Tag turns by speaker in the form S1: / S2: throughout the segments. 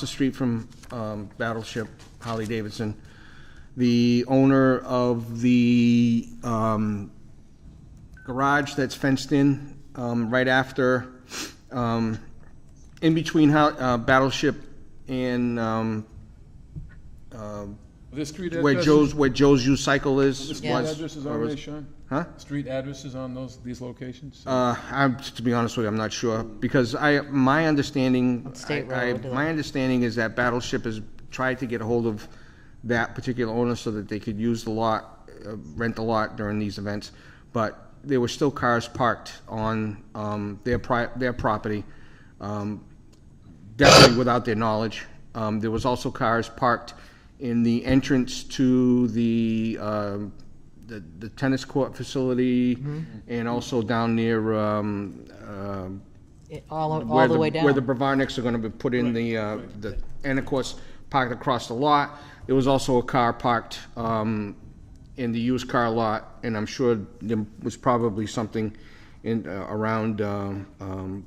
S1: the street from um, Battleship Holly Davidson, the owner of the um, garage that's fenced in um, right after, um, in between Ho- uh, Battleship and um,
S2: The street
S1: where
S2: addresses?
S1: Joe's, where Joe's used cycle
S2: The
S1: is.
S2: street
S1: was-
S2: addresses
S1: or
S2: on
S1: was-
S2: there, Sean?
S1: Huh?
S2: Street addresses on those, these locations?
S1: Uh, I'm, to be honest with you, I'm not sure, because I, my understanding,
S3: State
S1: I- I-
S3: Road, uh,
S1: my understanding is that Battleship has tried to get a hold of that particular owner so that they could use the lot, uh, rent the lot during these events, but there were still cars parked on, um, their pri, their property, um, definitely without their knowledge. Um, there was also cars parked in the entrance to the, um, the, the tennis court facility
S3: Mm-hmm.
S1: and also down near, um, um,
S3: It- All,
S1: where
S3: all the way down.
S1: Where the Brevarniks are gonna be put in the, uh, the, and of course, parked across the lot. There was also a car parked, um, in the used car lot, and I'm sure there was probably something in, uh, around, um, um,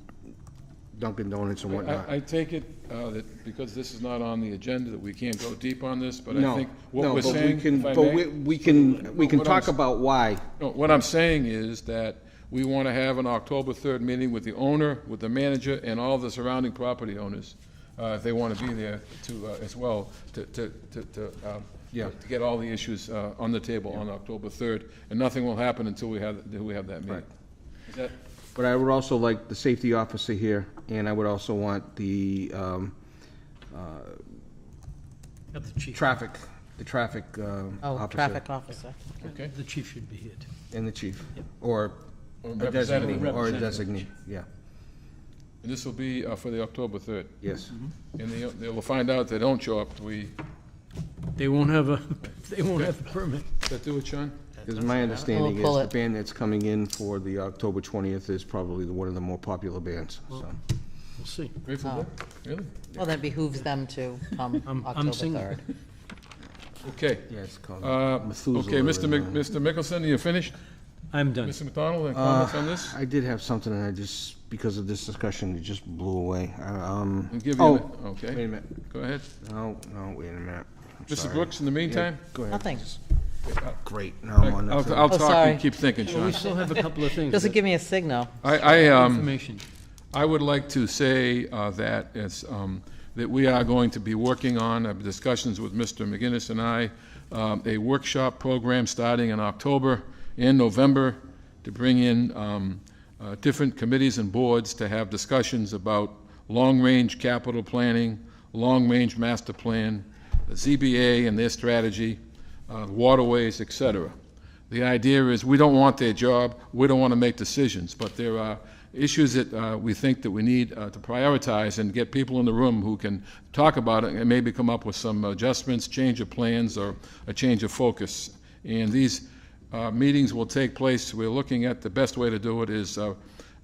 S1: Dunkin' Donuts and whatnot.
S2: I, I take it uh, that because this is not on the agenda, that we can't go deep on this, but I
S1: No,
S2: think what
S1: no,
S2: we're
S1: but we
S2: saying,
S1: can,
S2: if I
S1: but
S2: may-
S1: we, we can, we can
S2: What I'm
S1: talk
S2: s-
S1: about why.
S2: No, what I'm saying is that we want to have an October 3rd meeting with the owner, with the manager, and all the surrounding property owners, uh, if they want to be there to, uh, as well, to, to, to- to, um,
S1: Yeah.
S2: to get all the issues uh, on the table on October 3rd, and nothing will happen until we have, until we have that meeting. Is that,
S1: But I would also like the safety officer here, and I would also want the, um,
S4: Got the chief,
S1: traffic, the traffic, um,
S3: Oh,
S1: officer.
S3: traffic officer.
S2: okay?
S4: the chief should be here. too.
S1: And the chief, or a
S2: Or representative.
S1: designee, or a designee, yeah,
S2: And this will be uh, for the October 3rd.
S1: yes.
S2: And they, they'll find out if they don't show up, we,
S4: They won't have a, they won't have a permit.
S2: does that do it, Sean?
S1: Because my understanding is
S3: pull
S1: the
S3: it.
S1: band that's coming in for the October twentieth is probably the- one of the more popular bands, so.
S4: We'll see.
S2: Grateful Dead? Really?
S3: Well, that behooves them to come
S4: I'm- I'm
S3: October
S4: single.
S3: 3rd.
S2: Okay.
S1: Yeah, it's called
S2: Uh,
S1: Methuselah
S2: Okay, Mr. Mc-
S1: and, uh,
S2: Mr. Mickelson, you finished?
S4: I'm done.
S2: Mr. McDonald, any
S1: Uh,
S2: comments on this?
S1: I did have something, and I just, because of this discussion, it just blew away. I, Um.
S2: I'll give you
S1: oh,
S2: the- okay.
S1: Wait a minute.
S2: Go ahead.
S1: No, no, wait a minute. I'm
S2: Mrs.
S1: sorry.
S2: Brooks, in the meantime?
S1: Go ahead.
S3: Nothing.
S1: Great, now I'm on
S2: I'll
S1: nothing.
S2: I'll talk,
S3: sorry.
S2: you keep thinking,
S4: We
S2: Sean.
S4: still have a couple of things.
S3: Doesn't
S4: that-
S3: give me a signal.
S2: I, I, um,
S4: Information.
S2: I would like to say uh, that it's, um, that we are going to be working on uh, discussions with Mr. McGinnis and I, um, a workshop program starting in October and November to bring in um, uh, different committees and boards to have discussions about long-range capital planning, long-range master plan, the ZBA and their strategy, uh, waterways, et cetera. The idea is, we don't want their job, we don't want to make decisions, but there are issues that uh, we think that we need uh, to prioritize and get people in the room who can talk about it and maybe come up with some adjustments, change of plans, or a change of focus. And these uh, meetings will take place, we're looking at the best way to do it is uh,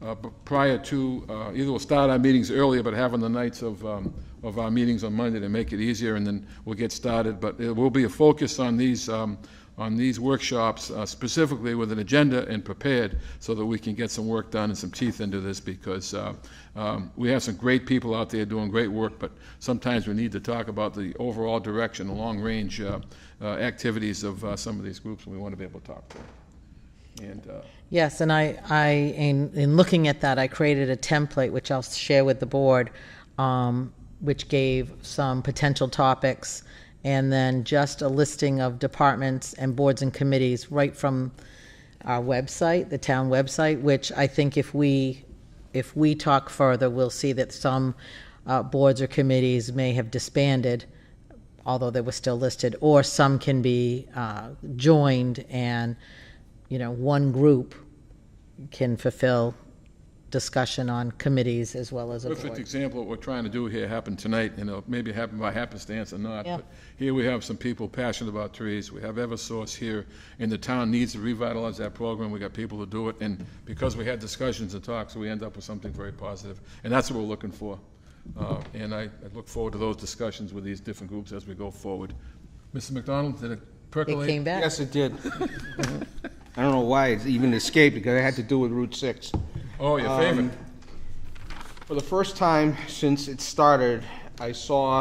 S2: uh, b- prior to, uh, either we'll start our meetings earlier, but having the nights of, um, of our meetings on Monday to make it easier, and then we'll get started. But there will be a focus on these, um, on these workshops uh, specifically with an agenda and prepared so that we can get some work done and some teeth into this because uh, um, we have some great people out there doing great work, but sometimes we need to talk about the overall direction, the long-range uh, uh, activities of uh, some of these groups, and we want to be able to talk to them. And uh,
S3: Yes, and I, I, in, in looking at that, I created a template, which I'll share with the board, um, which gave some potential topics, and then just a listing of departments and boards and committees right from our website, the town website, which I think if we, if we talk further, we'll see that some, uh, boards or committees may have disbanded, although they were still listed, or some can be uh, joined and, you know, one group can fulfill discussion on committees as well as a
S2: perfect
S3: board.
S2: example of what we're trying to do here happened tonight, and it maybe happened by happenstance or not.
S3: Yeah.
S2: but Here we have some people passionate about trees, we have Eversource here, and the town needs to revitalize that program, we got people to do it, and because we had discussions and talks, we end up with something very positive, and that's what we're looking for. Uh, And I I look forward to those discussions with these different groups as we go forward. Mr. McDonald, did it
S3: It
S2: percolate?
S3: came back.
S1: Yes, it did. I don't know why it even escaped, because it had to do with Route Six. Um,
S2: Oh, your favorite.
S1: For the first time since it started, I saw